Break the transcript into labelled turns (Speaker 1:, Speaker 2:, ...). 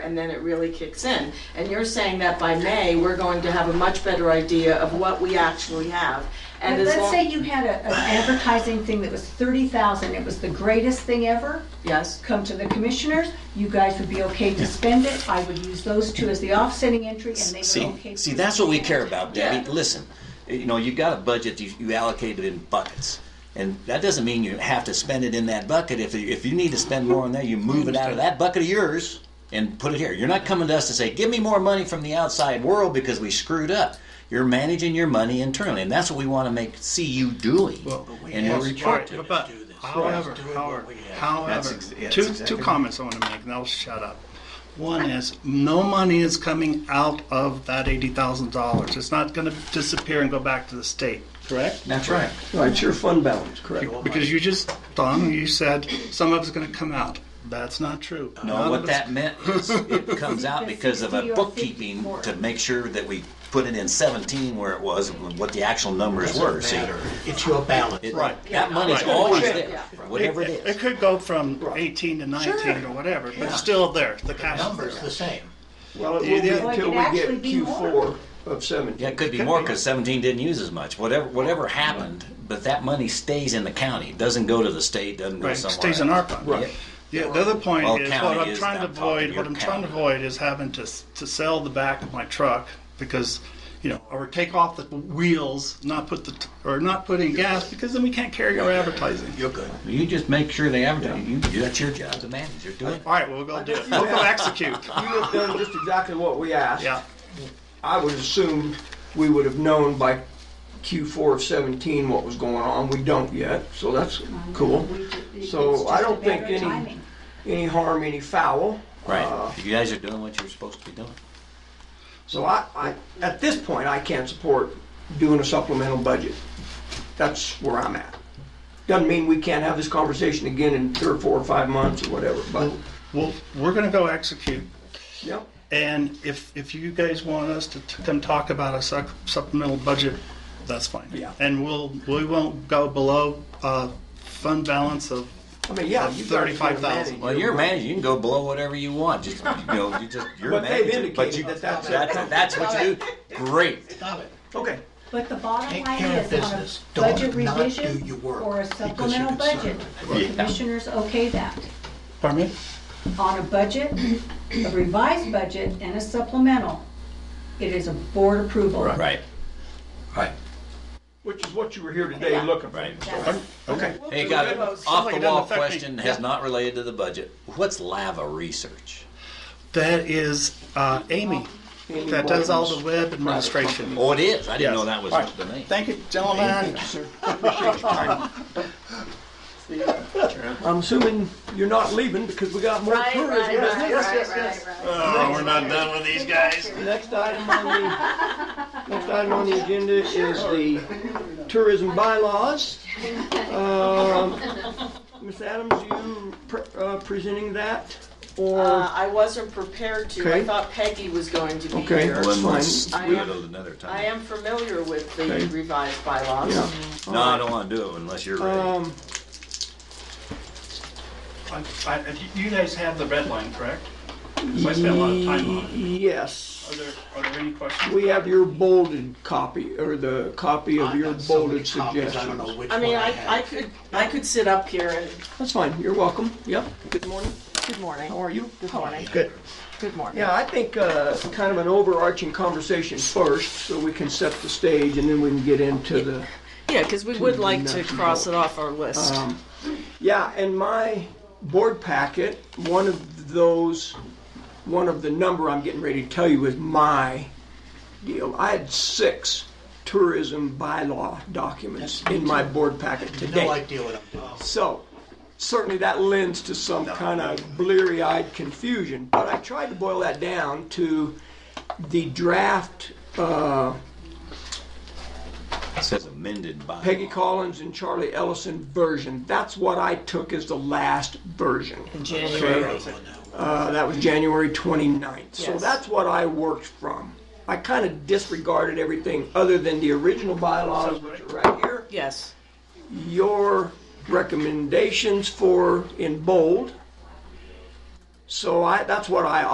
Speaker 1: and then it really kicks in. And you're saying that by May, we're going to have a much better idea of what we actually have. And as
Speaker 2: Let's
Speaker 1: long-
Speaker 2: say you had a- an advertising thing that was 30,000, it was the greatest thing ever,
Speaker 1: Yes,
Speaker 2: come to the commissioners, you guys would be okay to spend it, I would use those two as the offsetting entry, and they were okay.
Speaker 3: See, see, that's what we care about, Debbie.
Speaker 1: Yeah.
Speaker 3: Listen, you know, you got a budget, you, you allocate it in buckets. And that doesn't mean you have to spend it in that bucket. If, you- if you need to spend more on that, you move it out of that bucket of yours and put it here. You're not coming to us to say, give me more money from the outside world because we screwed up. You're managing your money internally, and that's what we want to make, see you doing. And we'll report to it.
Speaker 4: But however, however, however,
Speaker 5: That's ex- yeah,
Speaker 4: two,
Speaker 5: that's
Speaker 4: two
Speaker 5: exactly-
Speaker 4: comments I want to make, and I'll shut up. One is, no money is coming out of that eighty thousand dollars. It's not gonna disappear and go back to the state, correct?
Speaker 3: That's right.
Speaker 6: No, it's your fund balance, correct?
Speaker 4: Because you just, Don, you said some of it's gonna come out. That's not true. None
Speaker 3: No,
Speaker 4: of
Speaker 3: what
Speaker 4: it's-
Speaker 3: that meant is it comes out because of a bookkeeping to make sure that we put it in seventeen where it was, and what the actual numbers were, see?
Speaker 5: It's your balance.
Speaker 3: It-
Speaker 4: Right.
Speaker 3: That money's
Speaker 4: Right.
Speaker 3: always
Speaker 4: Right.
Speaker 3: there, whatever it
Speaker 4: It
Speaker 3: is.
Speaker 4: could go from eighteen to nineteen or whatever, but it's still there, the cash is
Speaker 5: Number's
Speaker 4: there.
Speaker 5: the same.
Speaker 6: Well, it
Speaker 4: You
Speaker 6: will be
Speaker 4: did-
Speaker 6: until we
Speaker 2: Well, it could actually
Speaker 6: get
Speaker 2: be more.
Speaker 6: Q4 of 17.
Speaker 3: Yeah, it could be
Speaker 4: could
Speaker 3: more
Speaker 4: be.
Speaker 3: because seventeen didn't use as much, whatever, whatever happened, but that money stays in the county, It doesn't go to the state, doesn't go
Speaker 4: Right,
Speaker 3: somewhere.
Speaker 4: stays in
Speaker 3: else.
Speaker 4: our fund.
Speaker 3: Right.
Speaker 4: Yeah, the other point
Speaker 3: Well,
Speaker 4: is,
Speaker 3: county
Speaker 4: what I'm
Speaker 3: is
Speaker 4: trying to
Speaker 3: not talking,
Speaker 4: avoid, what
Speaker 3: your
Speaker 4: I'm trying to
Speaker 3: county.
Speaker 4: avoid is having to, s- to sell the back of my truck because, you know, or take off the wheels, not put the, t- or not put in gas, because then we can't carry our advertising.
Speaker 5: You're good.
Speaker 3: You just make sure they advertise, you, that's your job to manage, you're doing it.
Speaker 4: All right, well, we'll go do it. We'll go execute.
Speaker 6: You have done just exactly what we asked.
Speaker 4: Yeah,
Speaker 6: I would assume we would have known by Q4 of 17 what was going on. We don't yet, so that's cool. So I don't think any, any harm, any foul. Uh,
Speaker 3: Right, you guys are doing what you're supposed to be doing.
Speaker 6: So I, I, at this point, I can't support doing a supplemental budget. That's where I'm at. Doesn't mean we can't have this conversation again in three or four or five months or whatever, but,
Speaker 4: well, we're gonna go execute.
Speaker 6: yeah.
Speaker 4: And if, if you guys want us to t- come talk about a sup- supplemental budget, that's fine.
Speaker 6: Yeah.
Speaker 4: And we'll, we won't go below, uh, fund balance of
Speaker 6: I mean, yeah. you guys gotta
Speaker 4: 35,000.
Speaker 6: manage
Speaker 3: Well,
Speaker 6: your
Speaker 3: you're a manager. You can go below whatever you want. Just you know, you just you're a
Speaker 6: But they've
Speaker 3: manager. But you,
Speaker 6: indicated that that's-
Speaker 3: that's that's what you do. Great.
Speaker 5: Stop it.
Speaker 6: Okay.
Speaker 2: But the bottom
Speaker 5: Take
Speaker 2: line
Speaker 5: care
Speaker 2: is
Speaker 5: of
Speaker 2: on a
Speaker 5: business. Don't
Speaker 2: budget
Speaker 5: not do your
Speaker 2: revision
Speaker 5: work
Speaker 2: or a
Speaker 5: because you're
Speaker 2: supplemental budget, the
Speaker 3: Yeah.
Speaker 2: commissioners okay that.
Speaker 4: Pardon me?
Speaker 2: On a budget, a revised budget and a supplemental, it is a board approval.
Speaker 3: Right. Right.
Speaker 6: Which is what you were here today looking for.
Speaker 3: Right.
Speaker 2: That's-
Speaker 4: Okay.
Speaker 3: Hey, got an off
Speaker 4: like it
Speaker 3: the
Speaker 4: doesn't
Speaker 3: wall
Speaker 4: affect me.
Speaker 3: question has
Speaker 4: Yeah.
Speaker 3: not related to the budget. What's lava research?
Speaker 4: That is uh, Amy, that does all the web administration.
Speaker 3: Oh, it is. I didn't know that was
Speaker 4: All right.
Speaker 3: the name.
Speaker 4: Thank you, gentlemen.
Speaker 6: I'm assuming you're not leaving because we got more
Speaker 7: Right,
Speaker 6: tourism.
Speaker 7: right,
Speaker 6: business.
Speaker 7: right, right, right, right.
Speaker 4: Oh, we're not done with these guys.
Speaker 6: Next item on the, next item on the agenda is the tourism bylaws. Um, Ms. Adams, you pre- uh, presenting that?
Speaker 1: uh,
Speaker 6: Or,
Speaker 1: I wasn't prepared to, I
Speaker 6: Okay.
Speaker 1: thought Peggy was going to be
Speaker 6: Okay.
Speaker 1: here.
Speaker 6: Well,
Speaker 3: One let's do
Speaker 1: I
Speaker 3: it
Speaker 1: am-
Speaker 3: another time.
Speaker 1: I am familiar with the
Speaker 6: Okay.
Speaker 1: revised bylaws.
Speaker 6: yeah.
Speaker 3: No, I don't want to do it unless you're ready.
Speaker 6: Um,
Speaker 4: I- I- You guys have the red line, correct? So I spent a lot of time on it. Are
Speaker 6: Yes.
Speaker 4: there, are there any questions?
Speaker 6: We have your bolded copy, or the copy of
Speaker 5: I've
Speaker 6: your
Speaker 5: got so
Speaker 6: bolded
Speaker 5: many copies, I don't know
Speaker 6: suggestions.
Speaker 5: which
Speaker 1: I
Speaker 5: one
Speaker 1: mean, I, I
Speaker 5: have.
Speaker 1: could, I could sit up here and,
Speaker 6: That's fine, you're welcome. Yep, good morning.
Speaker 1: good morning,
Speaker 6: How are you?
Speaker 1: good morning,
Speaker 6: Good.
Speaker 1: good morning.
Speaker 6: Yeah, I think uh, kind of an overarching conversation first, so we can set the stage, and then we can get into the,
Speaker 1: Yeah, because we would like to
Speaker 6: Nothing.
Speaker 1: cross it off our list.
Speaker 6: Um, yeah, in my board packet, one of those, one of the number I'm getting ready to tell you is my deal. I had six tourism bylaw documents in my board packet today.
Speaker 5: No idea what I'm doing.
Speaker 6: So, certainly that lends to some kind of bleary-eyed confusion, but I tried to boil that down to the draft, uh,
Speaker 3: it says amended by
Speaker 6: Peggy Collins and Charlie Ellison version. That's what I took as the last version.
Speaker 1: January,
Speaker 6: Uh, that was January 29th. So
Speaker 1: Yes.
Speaker 6: that's what I worked from. I kind of disregarded everything other than the original bylaws, which are right here.
Speaker 1: yes,
Speaker 6: your recommendations for in bold. So I, that's what I